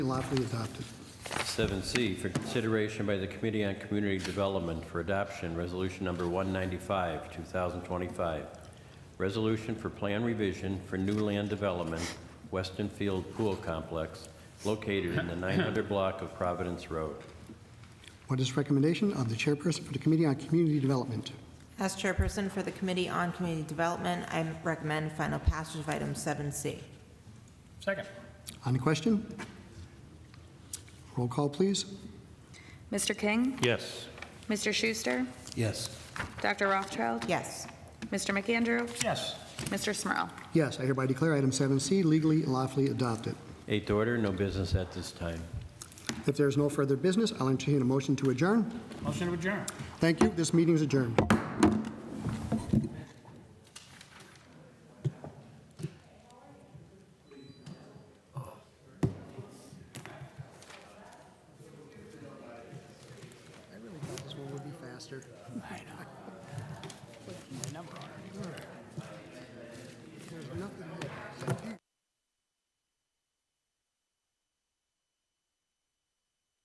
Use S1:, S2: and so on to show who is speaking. S1: Lawfully adopted.
S2: 7C for consideration by the Committee on Community Development for Adoption, Resolution Number 195, 2025. Resolution for Plan Revision for New Land Development, Weston Field Pool Complex, located in the 900 block of Providence Road.
S1: What is recommendation of the chairperson for the Committee on Community Development?
S3: As chairperson for the Committee on Community Development, I recommend final passage of item 7C.
S4: Second.
S1: On the question? Roll call, please.
S5: Mr. King?
S2: Yes.
S5: Mr. Schuster?
S2: Yes.
S5: Dr. Rothschild?
S3: Yes.
S5: Mr. McAndrew?
S4: Yes.
S5: Mr. Smurl?
S1: Yes, I hereby declare item 7C legally and lawfully adopted.
S2: Eighth order, no business at this time.
S1: If there is no further business, I'll entertain a motion to adjourn.
S4: Motion to adjourn.
S1: Thank you, this meeting is adjourned. I really thought this one would be faster. I know.